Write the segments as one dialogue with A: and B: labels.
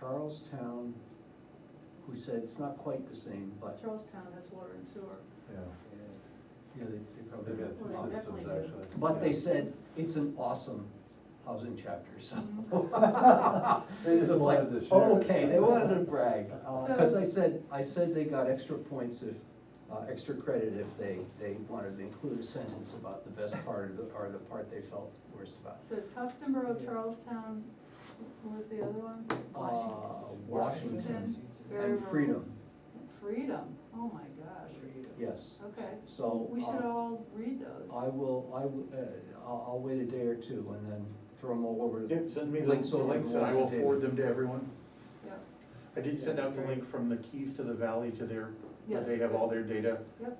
A: Charlestown, who said it's not quite the same, but,
B: Charlestown has water and sewer.
C: Yeah,
A: yeah, they they probably.
C: they've got
B: Well,
C: two
B: definitely
C: systems
B: do.
C: actually.
A: But they said, it's an awesome housing chapter, so.
B: Mm-hmm.
C: They just
A: It's like,
C: wanted to share.
A: "Oh, Okay, they wanted to brag, Uh,
B: So-
A: cause I said, I said they got extra points if, uh, extra credit if they, they wanted to include a sentence about the best part of the, or the part they felt worst about.
B: So Tuftonboro, Charlestown, what was the other one? Washington.
A: Uh, Washington and
B: Very
A: freedom,
B: Freedom, oh my gosh.
A: yes,
B: Okay,
A: so.
B: we should
A: uh,
B: all read those.
A: I will, I, will, uh, I'll, I'll wait a day or two and then throw them all over.
D: Yep, send me the
A: links over
D: links
A: the
D: and I will
A: Washington.
D: forward them to everyone.
B: Yep,
D: I did send out the
B: Yeah.
D: link from the Keys to the Valley to their, where
B: Yes.
D: they have all their data.
B: yep.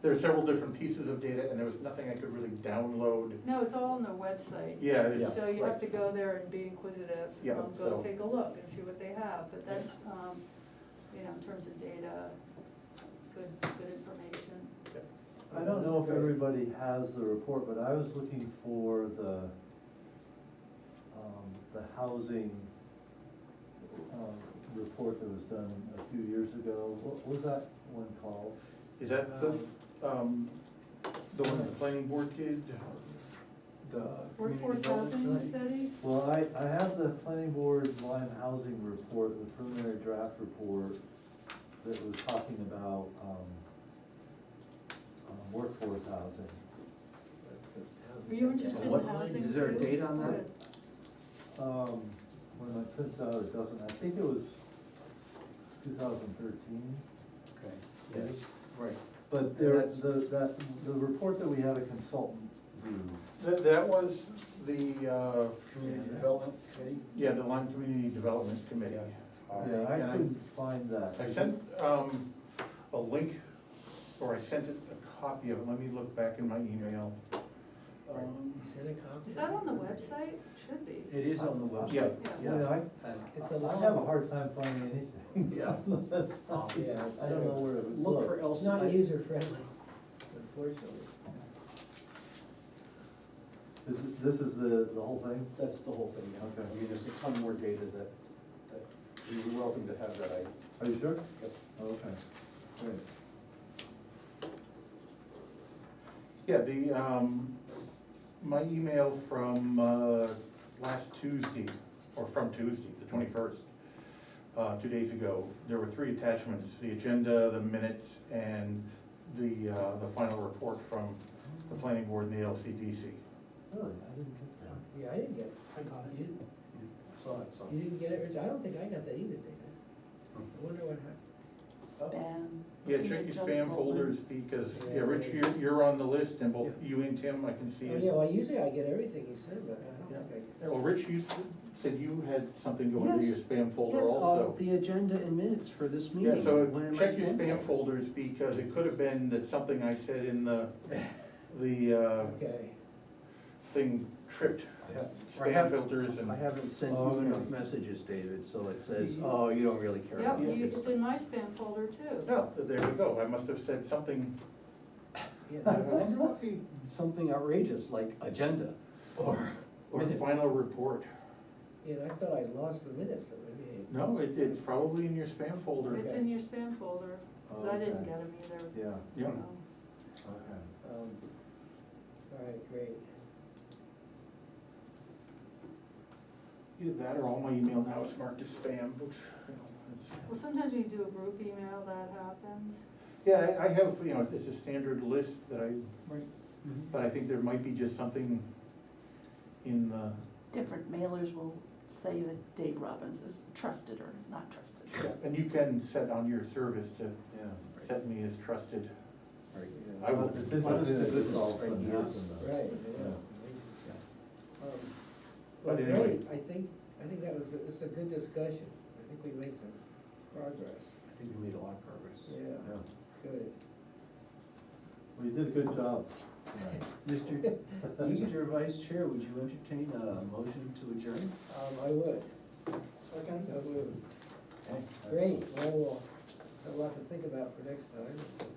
D: There are several different pieces of data and there was nothing I could really download.
B: No, it's all on their website.
D: Yeah, it's.
B: So you have
D: right.
B: to go there and be inquisitive,
D: Yeah,
B: um, go
D: so-
B: take a look and see what they have, but that's, um, you know, in terms of data, good, good information.
C: I don't know if everybody has the report, but I was looking for the, um, the housing, um, report that was done a few years ago. What was that one called?
D: Is that the, um, the one the planning board did?
A: The community
B: Workforce housing
A: development study.
B: study?
C: Well, I, I have the planning board Lyme housing report, the preliminary draft report that was talking about, um, um, workforce housing.
B: Were you interested in
A: What-
B: housing
A: is there a
B: too?
A: date on that?
B: Good.
C: Um, when my prints out, it doesn't, I think it was two thousand thirteen.
A: Okay, yes, right.
C: But there,
A: That's-
C: the, that, the report that we had a consultant do,
D: That, that was the, uh,
A: Community development committee?
D: yeah, the Lime Community Development Committee.
A: Oh,
C: yeah, I
D: And I-
C: couldn't find that.
D: I sent, um, a link, or I sent it a copy of it, let me look back in my email. Um,
B: Is that on the website? Should be.
A: It is on the
D: Yeah.
A: website.
C: Yeah,
A: And uh,
E: It's a
C: I, I
E: long.
C: have a hard time finding anything.
A: Yeah.
C: That's
A: oh,
C: not-
E: Yeah.
C: I don't know where it would
A: Look for
C: look.
E: It's
A: else.
E: not user friendly, unfortunately.
C: This, is- this is the, the whole thing?
A: That's the whole thing, yeah.
C: Okay.
A: I mean, there's a ton more data that, that, you're welcome to have that, I,
C: Are you sure?
A: yep.
C: Oh, Okay, great.
D: Yeah, the, um, my email from, uh, last Tuesday, or from Tuesday, the twenty-first, uh, two days ago, there were three attachments, the agenda, the minutes, and the, uh, the final report from the planning board and the LCDC.
C: Really, I didn't get that.
E: Yeah, I didn't get it.
A: I got
E: You didn't,
A: You Saw it, saw
E: you
A: it.
E: didn't get it, Rich? I don't think I got that either, Dana. I wonder what happened.
C: Oh.
F: Spam.
D: Yeah, check your spam folders, because, yeah, Rich, you're, you're on the list, and both you and Tim, I can see
E: Oh, yeah,
D: it.
E: well, usually I get everything you send, but I don't think I
D: Well,
E: get
D: Rich, you s- said you had something going to your
A: Yes. uh,
D: spam folder also.
A: The agenda and minutes for this meeting.
D: Yeah, so
A: When am I
D: check your
A: supposed
D: spam
A: to-
D: folders, because it could have been that something I said in the, the,
E: that.
D: uh,
E: Okay.
D: thing tripped
A: I have-
D: spam filters and.
A: I haven't sent you
C: Okay.
A: enough messages, David, so it says, oh, you don't really care
B: Yep,
A: about
B: you- it's
A: this.
B: in my spam folder too.
D: No, there we go, I must have said something,
E: Yeah,
D: I
E: that's-
D: wonder
A: Something outrageous like agenda or
D: or
A: minutes.
D: final report.
E: Yeah, I thought I lost the minutes, but maybe. I-
D: No, it, it's probably in your spam folder.
B: It's
E: Okay.
B: in your spam folder, 'cause I didn't
C: Okay.
B: get them either.
C: Yeah,
D: Yeah,
B: Um,
C: okay.
E: um, All right, great.
D: either that or all my email now is marked as spam, which, you know, it's.
B: Well, sometimes when you do a group email, that happens.
D: Yeah, I, I have, you know, it's a standard list that I,
A: Mhm.
D: but I think there might be just something in the,
F: Different mailers will say that Dave Robbins is trusted or not trusted.
D: and you can set on your service to
C: Yeah.
D: set me as trusted.
A: Right.
D: I will-
A: honest
C: It's
A: to
C: interesting that this
A: goodness,
C: all of a sudden
A: right, yes.
C: happened, though.
E: Right, yeah.
C: Yeah.
E: Um, Well,
D: But anyway.
E: great, I think, I think that was, it's a good discussion. I think we made some progress.
A: I think we made a lot of progress.
E: Yeah,
C: Yeah.
E: good.
C: Well, you did a good job tonight.
A: Mr. Mr. Vice Chair, would you entertain a motion to adjourn?
E: Um, I would. Second? I would. Great, well, we'll have a lot to think about for next time.